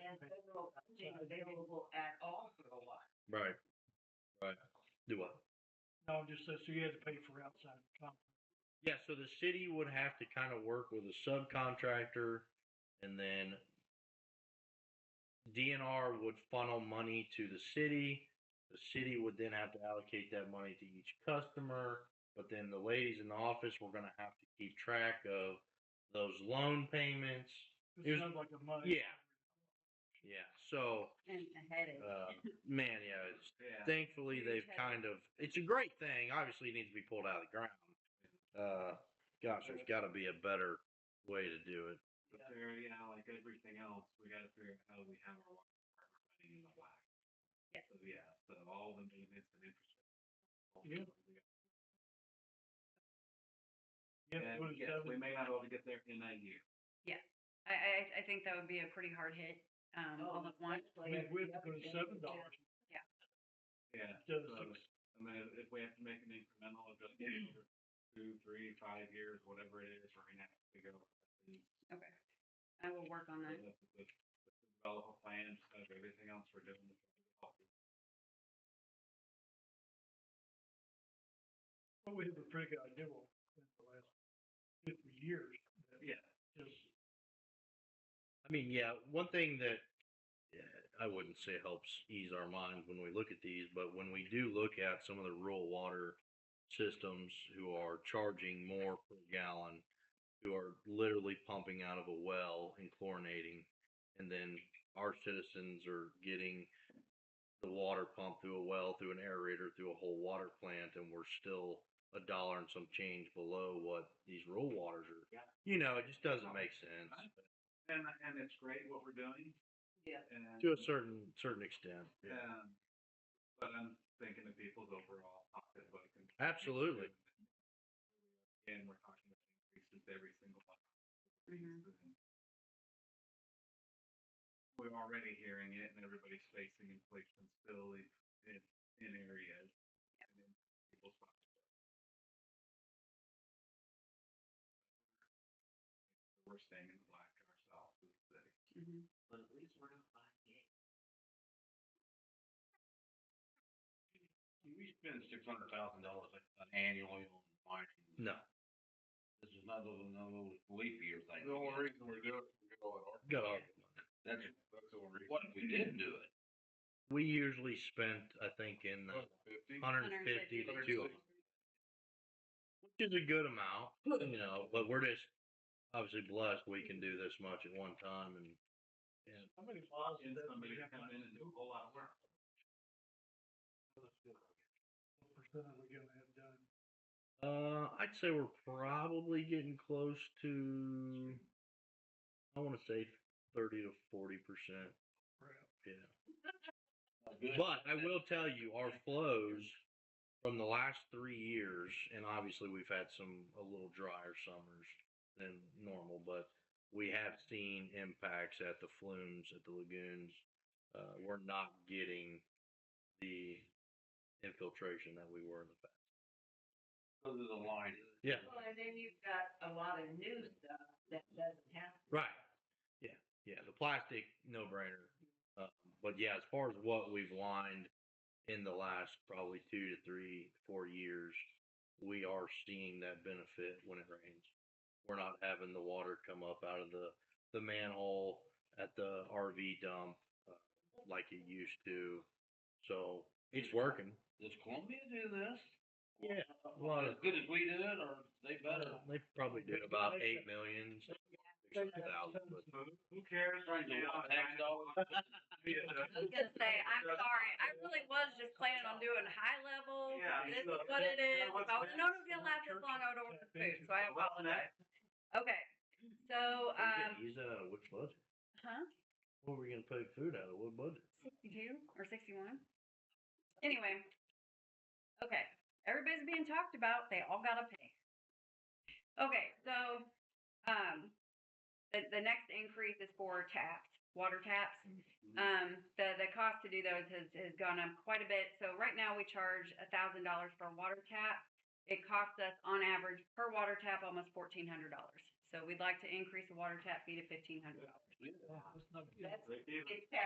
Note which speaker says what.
Speaker 1: and federal funding available at all for a while.
Speaker 2: Right, right. Do what?
Speaker 3: No, just so so you had to pay for outside the company.
Speaker 2: Yeah, so the city would have to kind of work with a subcontractor and then DNR would funnel money to the city. The city would then have to allocate that money to each customer. But then the ladies in the office were going to have to keep track of those loan payments.
Speaker 3: It
Speaker 2: Here's-
Speaker 3: sounds like a money.
Speaker 2: Yeah. Yeah, so
Speaker 1: And a headache.
Speaker 2: uh, man, yeah, it's,
Speaker 4: Yeah.
Speaker 2: thankfully they've
Speaker 1: Okay.
Speaker 2: kind of it's a great thing obviously it needs to be pulled out of the ground uh gosh there's got to be a better way to do it
Speaker 4: But there, you know, like everything else, we gotta figure out how we have our water running in the black.
Speaker 1: Yeah.
Speaker 4: So, yeah, so all the maintenance and infrastructure. all
Speaker 3: Yeah.
Speaker 4: the-
Speaker 3: Yeah,
Speaker 4: And yes, we may not be able to get there in that year.
Speaker 5: I, I, I think that would be a pretty hard hit, um, all at once.
Speaker 3: Oh, I mean, we have to go to seven dollars
Speaker 4: Yeah,
Speaker 3: instead
Speaker 4: so,
Speaker 3: of six.
Speaker 4: I mean, if we have to make an incremental adjustment over two, three, five years, whatever it is, we're gonna have to go.
Speaker 5: Okay. I will work on that.
Speaker 4: Develop a plan, just like everything else we're doing. to try to help it.
Speaker 3: But we have a pretty good idea what we've done the last fifty years. that
Speaker 4: Yeah.
Speaker 3: Just,
Speaker 2: i mean yeah one thing that yeah, i wouldn't say helps ease our minds when we look at these but when we do look at some of the rural water systems who are charging more per gallon who are literally pumping out of a well and chlorinating and then our citizens are getting the water pump through a well, through an aerator, through a whole water plant, and we're still a dollar and some change below what these rural waters are.
Speaker 4: Yeah.
Speaker 2: You know, it just doesn't make sense
Speaker 4: And, and it's great what we're doing.
Speaker 1: Yeah.
Speaker 4: And.
Speaker 2: to a certain certain extent.
Speaker 4: Um, but I'm thinking of people's overall pocketbook. and-
Speaker 2: Absolutely.
Speaker 4: And we're talking about increases every single month.
Speaker 5: Mhm.
Speaker 4: We're already hearing it and everybody's facing inflation still in, in, in areas. and in people's pocketbooks. We're staying in the black ourselves as a city.
Speaker 5: Mhm.
Speaker 1: But at least we're not buying it.
Speaker 6: We spend six hundred thousand dollars annually on mining.
Speaker 2: No,
Speaker 6: This is another, another leap year thing.
Speaker 4: The only reason we're doing it, we're going hard.
Speaker 2: good argument.
Speaker 6: That's,
Speaker 4: That's the only reason.
Speaker 6: what if we didn't do it?
Speaker 2: We usually spent, I think, in the
Speaker 4: Fifty?
Speaker 2: 150 to 200,
Speaker 4: Hundred
Speaker 2: which is a good amount, you know. But we're just obviously blessed we can do this much at one time, and
Speaker 3: how many miles
Speaker 4: and
Speaker 3: is that?
Speaker 4: somebody to come in and do a whole lot of work.
Speaker 3: What percent are we gonna have done?
Speaker 2: Uh, I'd say we're probably getting close to, I want to say 30 to 40 percent.
Speaker 3: Crap.
Speaker 2: Yeah.
Speaker 6: Good.
Speaker 2: But I will tell you, our flows from the last three years, and obviously we've had some a little drier summers than normal, but we have seen impacts at the flumes, at the lagoons. Uh, we're not getting the infiltration that we were in the past.
Speaker 6: Because of the line.
Speaker 2: Yeah.
Speaker 1: Well, and then you've got a lot of new stuff that doesn't happen.
Speaker 2: Right. Yeah. Yeah. The plastic, no brainer. Uh, but yeah, as far as what we've lined in the last probably two to three, four years, we are seeing that benefit when it rains. We're not having the water come up out of the, the manhole at the RV dump uh, like it used to. So it's working.
Speaker 6: Does Columbia do this?
Speaker 2: Yeah, lot
Speaker 6: As
Speaker 2: of-
Speaker 6: good as we did, or they better?
Speaker 2: They probably did about 8 million. 600,000, but
Speaker 4: Who cares right now?
Speaker 6: Tax dollars?
Speaker 5: I was gonna say, I'm sorry, I really was just planning on doing high level,
Speaker 4: Yeah,
Speaker 5: this is
Speaker 4: so-
Speaker 5: what it is.
Speaker 4: What's
Speaker 5: If I would've known it was
Speaker 3: next?
Speaker 5: gonna last this long, I would've ordered food, so I
Speaker 4: What's
Speaker 5: apologize. Okay, so,
Speaker 2: yeah,
Speaker 5: um,
Speaker 2: use that out of uh, which budget?
Speaker 5: huh,
Speaker 2: What were we going to pay food out of? What budget?
Speaker 5: sixty-two or sixty-one? Anyway, okay, everybody's being talked about, they all gotta pay. Okay, so, um, the, the next increase is for taps, water taps. Um, the, the cost to do those has, has gone up quite a bit. So right now we charge a thousand dollars for a water tap. It costs us on average per water tap almost fourteen hundred dollars. So we'd like to increase the water tap fee to fifteen hundred dollars.
Speaker 1: It's that